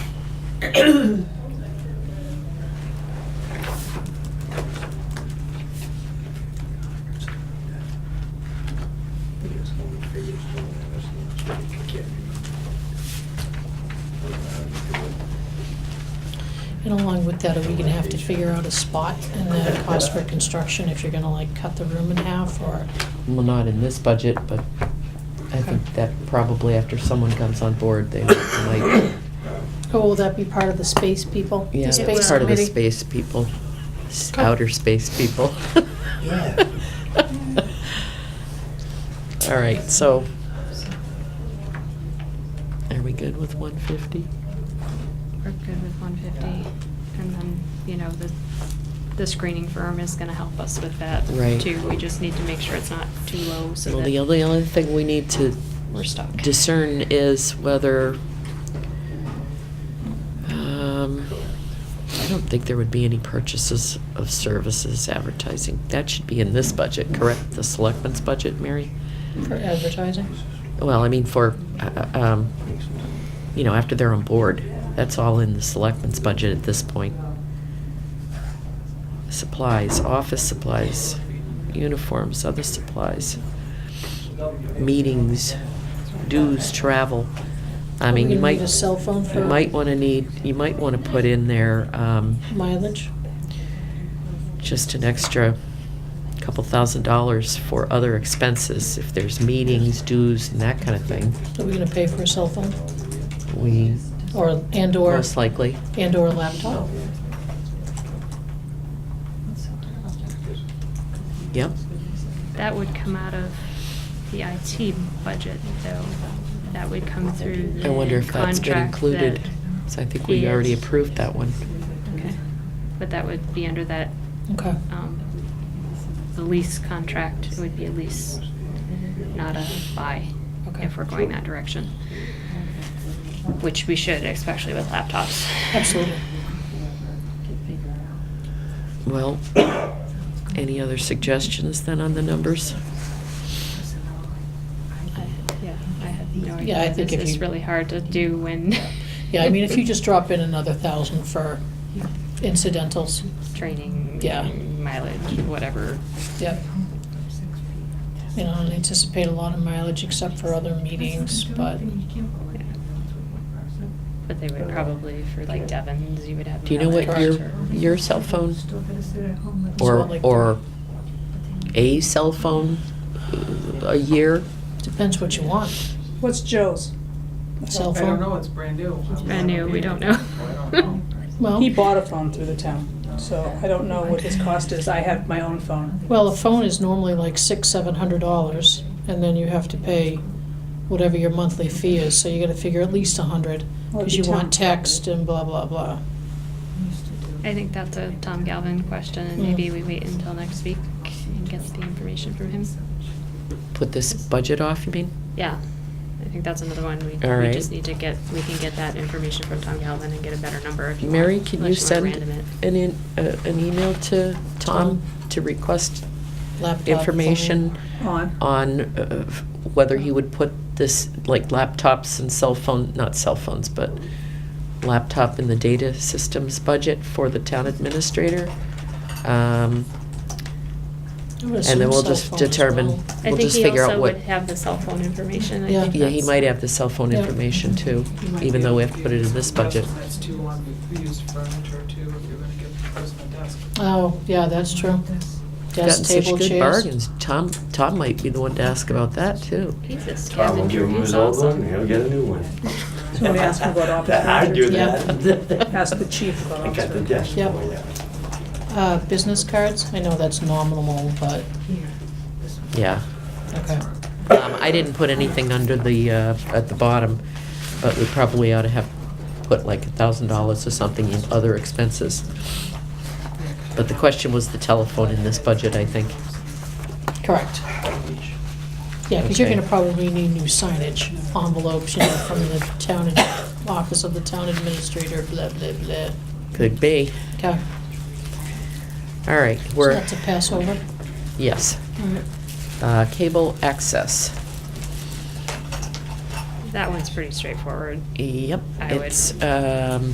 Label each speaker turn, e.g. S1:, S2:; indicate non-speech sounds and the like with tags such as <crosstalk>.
S1: And along with that, are we gonna have to figure out a spot in the cost for construction if you're gonna like cut the room in half or?
S2: Well, not in this budget, but I think that probably after someone comes on board, they might,
S1: Oh, will that be part of the space people? the
S2: yeah,
S1: space
S2: that's part of the
S1: committee?
S2: space people, s-
S1: Okay.
S2: outer space people.
S3: Yeah.
S2: <laughs> All right, so are we good with one fifty?
S4: We're good with one fifty, and then, you know, the, the screening firm is gonna help us with that
S2: Right.
S4: too. We just need to make sure it's not too low, so
S2: Well, the
S4: that
S2: only, only thing we need to
S4: we're stuck.
S2: discern is whether, um, I don't think there would be any purchases of services advertising. That should be in this budget, correct? The selectmen's budget, Mary?
S1: For advertising?
S2: Well, I mean, for, uh, uh, um, you know, after they're on board. That's all in the selectmen's budget at this point. Supplies, office supplies, uniforms, other supplies, meetings, dues, travel. I
S1: Are we
S2: mean,
S1: gonna
S2: you
S1: need
S2: might,
S1: a cell phone
S2: you
S1: for
S2: might wanna need, you might wanna put in there, um,
S1: mileage?
S2: just an extra couple thousand dollars for other expenses, if there's meetings, dues, and that kinda thing.
S1: Are we gonna pay for a cell phone
S2: We,
S1: or, and or,
S2: most likely,
S1: and or laptop?
S2: yep.
S4: That would come out of the IT budget though. That would come through the
S2: I wonder if that's been
S4: contract
S2: included.
S4: that-
S2: So I think we already
S4: Yes.
S2: approved that one.
S4: Okay, but that would be under that,
S1: Okay.
S4: um, the lease contract, it would be a lease, not a buy,
S1: Okay.
S4: if we're going that direction. Which we should, especially with laptops. <laughs>
S1: Absolutely.
S2: Well, any other suggestions then on the numbers?
S4: I- Yeah, I have no idea.
S1: Yeah, I think if
S4: This is
S1: you-
S4: really hard to do <laughs> when.
S1: Yeah, I mean, if you just drop in another thousand for incidentals,
S4: Training.
S1: Yeah.
S4: Mileage, whatever.
S1: yep. You know, I don't anticipate a lot of mileage except for other meetings, but
S4: yeah. But they would probably, for like Devon's, you would have.
S2: Do you know what
S1: Correct.
S2: your, your cell phone
S1: So,
S2: or,
S1: like,
S2: or a cell phone a year?
S1: depends what you want.
S5: What's Joe's?
S1: Cell
S6: I
S1: phone.
S6: don't know, it's brand new.
S4: Brand new, we don't know.
S6: I don't know.
S1: Well,
S5: He bought a phone through the town, so I don't know what his cost is. I have my own phone.
S1: well, a phone is normally like six, seven hundred dollars, and then you have to pay whatever your monthly fee is, so you gotta figure at least a hundred,
S5: Well,
S1: because
S5: it'd
S1: you
S5: be
S1: want
S5: 10.
S1: text and blah, blah, blah.
S4: I think that's a Tom Galvin question, and
S1: Mm.
S4: maybe we wait until next week and get the information from him.
S2: Put this budget off, you mean?
S4: Yeah, I think that's another one, we,
S2: All
S4: we
S2: right.
S4: just need to get, we can get that information from Tom Galvin and get a better number if you want.
S2: Mary, can you
S4: unless wanna
S2: send
S4: random it.
S2: an, in- uh, an email to Tom
S1: Tom.
S2: to request
S1: Laptop. phone.
S2: information
S5: On.
S2: on uh, whether he would put this, like laptops and cell phone, not cell phones, but laptop in the data systems budget for the town administrator. Um,
S1: I would
S2: And then
S1: assume
S2: we'll
S1: cell
S2: just
S1: phone as
S2: determine,
S1: well.
S4: I
S2: we'll
S4: think
S2: just
S4: he
S2: figure out
S4: also
S2: what.
S4: would have the cell phone information, I
S1: Yeah.
S4: think
S2: Yeah, he
S4: that's-
S2: might have the cell phone
S1: Yeah.
S2: information too, even though we have to put it in this budget.
S6: That's too long, we we use furniture too, if you're gonna give the person a desk.
S1: Oh, yeah, that's true.
S2: Gotten
S1: Desk,
S2: such
S1: table,
S2: good
S1: chairs.
S2: bargains. Tom, Tom might be the one to ask about that too.
S4: He's a
S3: Tom will give
S4: scavenger,
S3: him his
S4: he's
S3: old one,
S4: awesome.
S3: and
S4: <laughs>
S3: he'll get a new one.
S5: Somebody asked him about office
S3: I do
S1: furniture.
S3: that.
S5: Ask the chief about
S3: I
S5: office.
S3: got the
S5: furniture.
S3: desk.
S1: Yep.
S3: for you.
S1: Uh, business cards, I know that's nominal, but,
S2: Yeah.
S1: okay.
S2: Um, I didn't put anything under the, uh, at the bottom, but we probably ought to have put like a thousand dollars or something in other expenses. But the question was the telephone in this budget, I think.
S1: Correct. Yeah, because you're
S2: Okay.
S1: gonna probably need new signage, envelopes, you know, from the town, ad- office of the town administrator, blah, blah, blah.
S2: Could be.
S1: Okay,
S2: All right,
S1: so
S2: we're,
S1: that's a pass over.
S2: yes.
S1: All right.
S2: Uh, cable access.
S4: That one's pretty straightforward.
S2: Yep,
S4: I would-
S2: it's, um,